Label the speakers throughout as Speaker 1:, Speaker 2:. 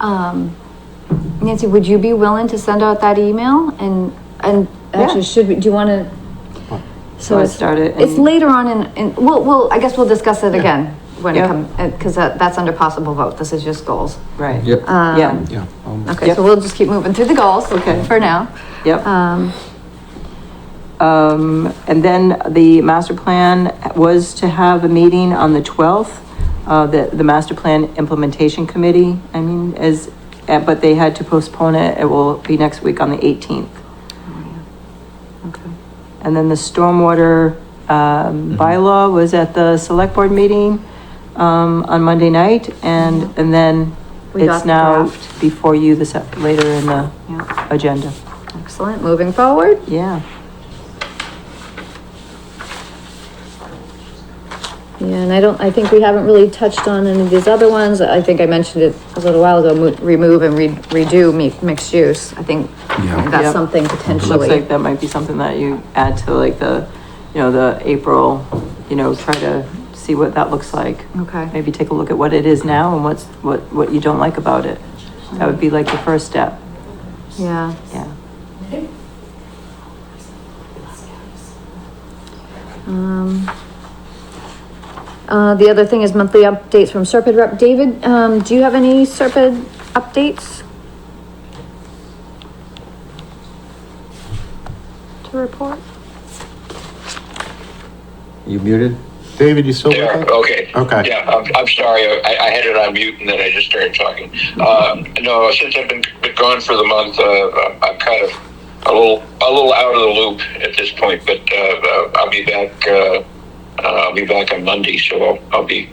Speaker 1: Um, Nancy, would you be willing to send out that email and, and actually,
Speaker 2: Yeah.
Speaker 1: should we, do you wanna? So
Speaker 2: Wanna
Speaker 1: it's,
Speaker 2: start it
Speaker 1: it's
Speaker 2: and-
Speaker 1: later on in, in, we'll, we'll, I guess we'll discuss it again when it
Speaker 2: Yeah.
Speaker 1: come, uh, cause that, that's under possible vote, this is just goals.
Speaker 2: Right.
Speaker 3: Yep.
Speaker 2: Yeah,
Speaker 3: Yeah. um,
Speaker 1: Okay,
Speaker 2: Yep.
Speaker 1: so we'll just keep moving through the goals.
Speaker 2: Okay.
Speaker 1: For now.
Speaker 2: yep.
Speaker 1: Um,
Speaker 2: Um, and then the master plan was to have a meeting on the twelfth. Uh, the, the master plan implementation committee, I mean, is, uh, but they had to postpone it. It will be next week on the eighteenth.
Speaker 1: okay.
Speaker 2: And then the stormwater,
Speaker 1: Mm-hmm.
Speaker 2: um, bylaw was at the select board meeting, um, on Monday night. And, and then
Speaker 1: Mm-hmm. We got
Speaker 2: it's
Speaker 1: the
Speaker 2: now
Speaker 1: draft.
Speaker 2: before you this, later in the
Speaker 1: Yeah,
Speaker 2: agenda.
Speaker 1: excellent, moving forward.
Speaker 2: Yeah.
Speaker 1: Yeah, and I don't, I think we haven't really touched on any of these other ones. I think I mentioned it a little while ago, mo- remove and re- redo mi- mixed use. I think
Speaker 3: Yeah.
Speaker 1: that's
Speaker 2: Yep.
Speaker 1: something
Speaker 2: Looks
Speaker 1: potentially.
Speaker 2: like that might be something that you add to like the, you know, the April, you know, try to see what that looks like.
Speaker 1: Okay,
Speaker 2: Maybe take a look at what it is now and what's, what, what you don't like about it. That would be like the first step,
Speaker 1: yeah.
Speaker 2: yeah.
Speaker 1: Um, uh, the other thing is monthly updates from Serpent rep. David, um, do you have any Serpent updates? To report?
Speaker 3: You muted?
Speaker 4: David, you still with
Speaker 5: Yeah,
Speaker 4: us?
Speaker 5: okay.
Speaker 4: Okay.
Speaker 5: Yeah, I'm, I'm sorry. I, I had it on mute and then I just started talking. Uh, no, since I've been, been gone for the month, uh, I'm- I'm kind of a little, a little out of the loop at this point, but, uh, uh, I'll be back, uh, uh, I'll be back on Monday, so I'll, I'll be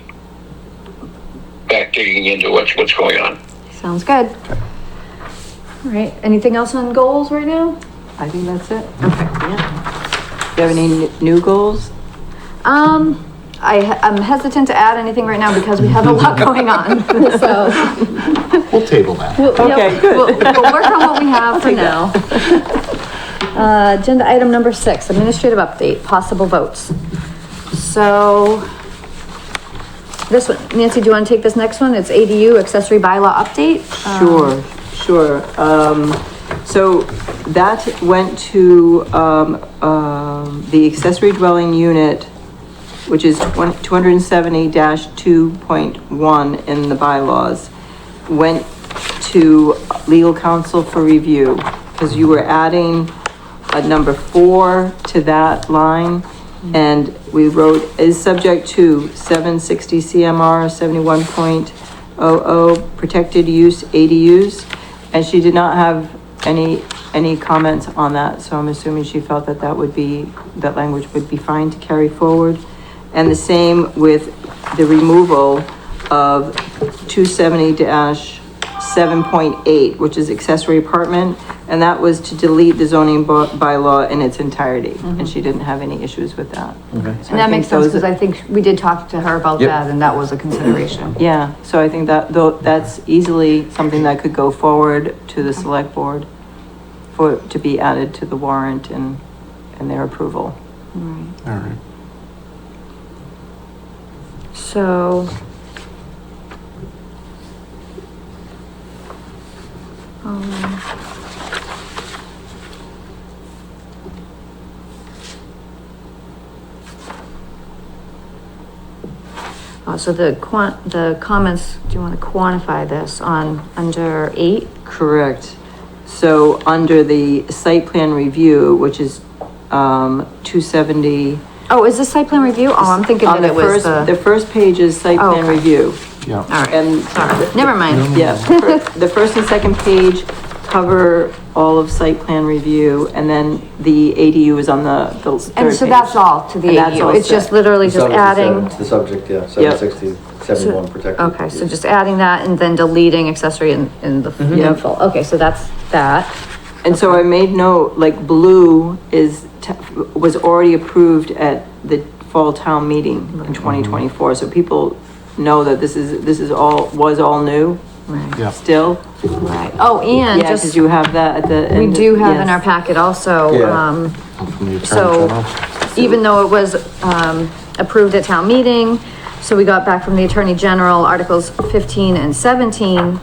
Speaker 5: back digging into what's, what's going on.
Speaker 1: Sounds good. All right, anything else on goals right now?
Speaker 2: I think that's it. Yeah. Do you have any n- new goals?
Speaker 1: Um, I, he- I'm hesitant to add anything right now because we have a lot going on, so.
Speaker 4: We'll table that.
Speaker 1: we'll- yeah,
Speaker 2: Okay, good.
Speaker 1: We'll, we'll work on what we have for now. Uh, agenda item number six, administrative update, possible votes. So, this one, Nancy, do you wanna take this next one? It's ADU accessory bylaw update? Um,
Speaker 2: Sure, sure. Um, so that went to, um, um, the accessory dwelling unit, which is two hundred and seventy two point one in the bylaws, went to legal counsel for review, because you were adding a number four to that line, and we wrote, is subject to seven sixty CMR seventy-one point oh oh, protected use ADUs, and she did not have any, any comments on that, so I'm assuming she felt that that would be, that language would be fine to carry forward. And the same with the removal of two seventy seven point eight, which is accessory apartment, and that was to delete the zoning by- bylaw in its entirety, and she didn't have any issues with that. So
Speaker 1: And
Speaker 2: I
Speaker 1: that
Speaker 2: think
Speaker 1: makes sense,
Speaker 2: those-
Speaker 1: cause I think we did talk to her about
Speaker 3: Yep.
Speaker 1: that and that was a consideration.
Speaker 2: Yeah, so I think that, though, that's easily something that could go forward to the select board for, to be added to the warrant and, and their approval.
Speaker 4: All right.
Speaker 1: So. Um, uh, so the quan, the comments, do you want to quantify this on, under eight?
Speaker 2: Correct. So under the site plan review, which is, um, two seventy.
Speaker 1: Oh, is this site plan review? Oh, I'm thinking that it was
Speaker 2: Um, The
Speaker 1: the,
Speaker 2: first page is site
Speaker 1: Oh,
Speaker 2: plan
Speaker 1: okay.
Speaker 2: review.
Speaker 4: Yeah.
Speaker 1: all
Speaker 2: and-
Speaker 1: right, sorry, never mind.
Speaker 2: Yeah, fir- the first and second page cover all of site plan review, and then the ADU is on the, the third
Speaker 1: And so
Speaker 2: page.
Speaker 1: that's all to the
Speaker 2: And that's all
Speaker 1: ADU. It's just
Speaker 2: set.
Speaker 1: literally
Speaker 6: The
Speaker 1: just
Speaker 6: subject is
Speaker 1: adding.
Speaker 6: seven- The subject, yeah,
Speaker 2: Yep.
Speaker 6: seven sixty, seventy-one protected.
Speaker 1: Okay, so just adding that and then deleting accessory in, in the in
Speaker 2: Yep.
Speaker 1: full. Okay, so that's that.
Speaker 2: And so I made note, like, blue is, t- was already approved at the fall town meeting in twenty twenty-four, so people know that this is, this is all, was all new
Speaker 1: Right.
Speaker 4: Yeah.
Speaker 2: still.
Speaker 1: Right. Oh, and
Speaker 2: Yeah, cause
Speaker 1: just,
Speaker 2: you have that at the.
Speaker 1: we
Speaker 2: end,
Speaker 1: do have in
Speaker 2: yes.
Speaker 1: our packet also,
Speaker 6: Yeah.
Speaker 1: um,
Speaker 4: From the
Speaker 1: so
Speaker 4: Attorney General.
Speaker 1: even though it was, um, approved at town meeting, so we got back from the Attorney General articles fifteen and seventeen, um,